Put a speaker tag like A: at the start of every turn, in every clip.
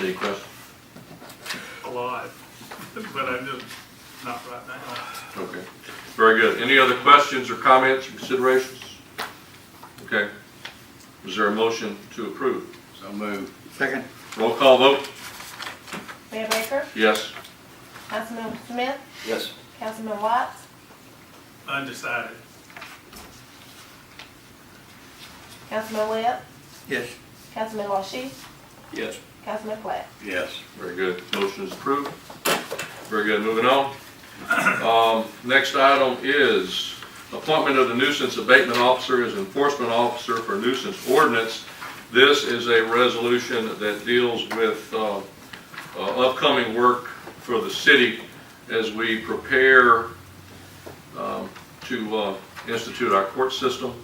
A: Any questions?
B: a lot, but I'm just, not right now.
A: Okay, very good. Any other questions or comments, or considerations? Okay. Is there a motion to approve?
C: So move.
D: Second.
A: Roll call vote?
E: Mayor Baker,
A: Yes.
E: Councilman Smith,
C: Yes.
E: Councilman Watts,
B: Undecided.
E: Councilman Webb,
D: Yes.
E: Councilman LaShie,
C: Yes.
E: Councilman Platt.
C: Yes.
A: Very good. Motion is approved. Very good, moving on. Um, Next item is appointment of the nuisance abatement officer as enforcement officer for nuisance ordinance. This is a resolution that deals with uh, uh, upcoming work for the city as we prepare um, to uh, institute our court system.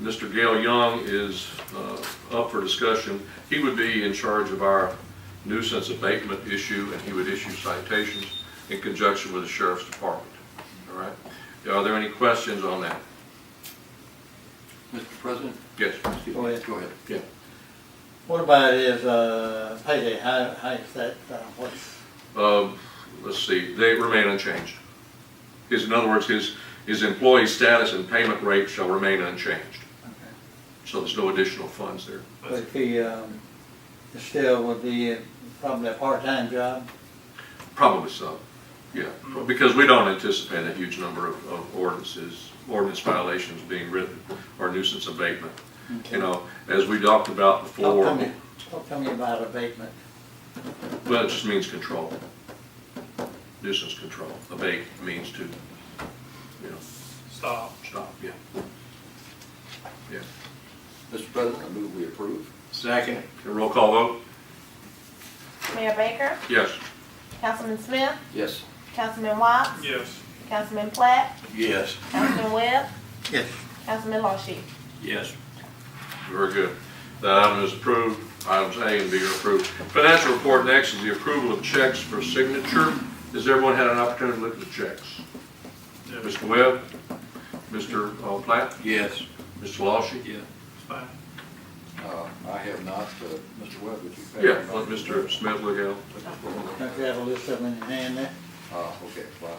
A: Mr. Gail Young is uh, up for discussion. He would be in charge of our nuisance abatement issue, and he would issue citations in conjunction with the sheriff's department. All right? Are there any questions on that?
C: Mr. President?
A: Yes?
D: Go ahead.
C: Go ahead.
A: Yeah.
D: What about is, uh, payday, how, how is that, uh, what's,
A: Um, Let's see, they remain unchanged. His, in other words, his, his employee status and payment rate shall remain unchanged.
D: okay.
A: So there's no additional funds there.
D: But if he, um, still would be probably a part-time job,
A: Probably so, yeah. Because we don't anticipate a huge number of of ordinances, ordinance violations being written or nuisance abatement. You know, as we talked about before.
D: talk to me, talk to me about abatement.
A: Well, it just means control. Nuisance control. Abate means to, you know,
B: Stop.
A: stop, yeah. Yeah.
C: Mr. President, I move we approve. Second.
A: Okay, Roll call vote?
E: Mayor Baker,
A: Yes.
E: Councilman Smith,
C: Yes.
E: Councilman Watts,
B: Yes.
E: Councilman Platt,
C: Yes.
E: Councilman Webb,
D: Yes.
E: Councilman LaShie.
C: Yes.
A: Very good. That item is approved. Items A and B are approved. Financial report next is the approval of checks for signature. Has everyone had an opportunity to look at the checks?
B: Yeah, it's
A: Mr. Webb? Mr. uh, Platt?
C: Yes.
A: Mr. LaShie?
C: Yeah.
B: fine.
C: Uh, I have not, uh, Mr. Webb, would you? favor
A: Yeah,
C: me?
A: let Mr. Smith look at it.
D: Don't you have a list of them in your hand there?
C: Uh, okay, well,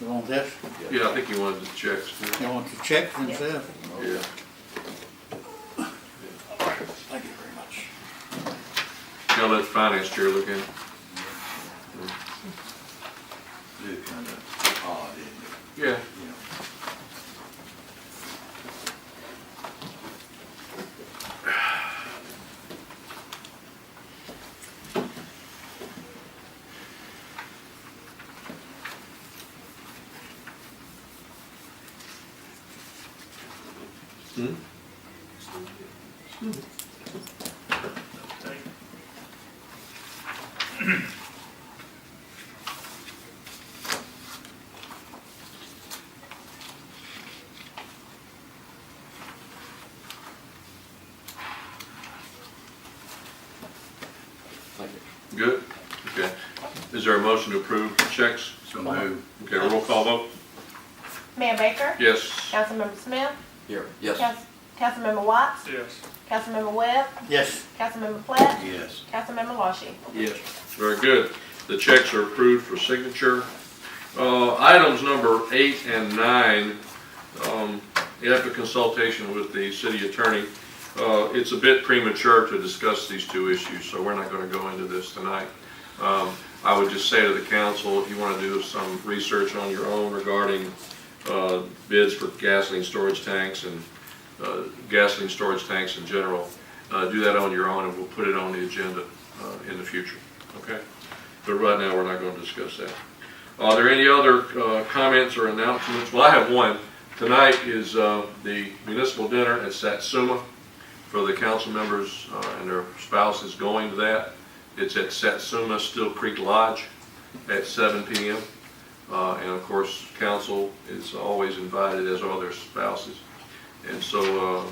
D: You want this?
A: Yeah, I think he wanted the checks. too.
D: You want the check themselves?
A: Yeah.
C: Thank you very much.
A: Now let the finance chair look at it.
C: It's kind of odd, isn't
A: Yeah.
C: it? You know?
A: Hmm?
B: Take it.
C: Thank you.
A: Good, okay. Is there a motion to approve checks?
C: So move.
A: Okay, roll call vote?
E: Mayor Baker,
A: Yes.
E: Councilmember Smith,
C: Here, yes.
E: Council- Councilmember Watts,
B: Yes.
E: Councilmember Webb,
D: Yes.
E: Councilmember Platt,
C: Yes.
E: Councilmember LaShie.
C: Yes.
A: Very good. The checks are approved for signature. Uh, items number eight and nine, um, after consultation with the city attorney, uh, it's a bit premature to discuss these two issues, so we're not gonna go into this tonight. Um, I would just say to the council, if you wanna do some research on your own regarding, uh, bids for gasoline storage tanks and, uh, gasoline storage tanks in general, uh, do that on your own, and we'll put it on the agenda, uh, in the future, okay? But right now, we're not gonna discuss that. Are there any other uh, comments or announcements? Well, I have one. Tonight is uh, the municipal dinner at Satsuma for the council members uh, and their spouses going to that. It's at Satsuma Still Creek Lodge at 7 PM. Uh, And of course, council is always invited, as are their spouses. And so uh,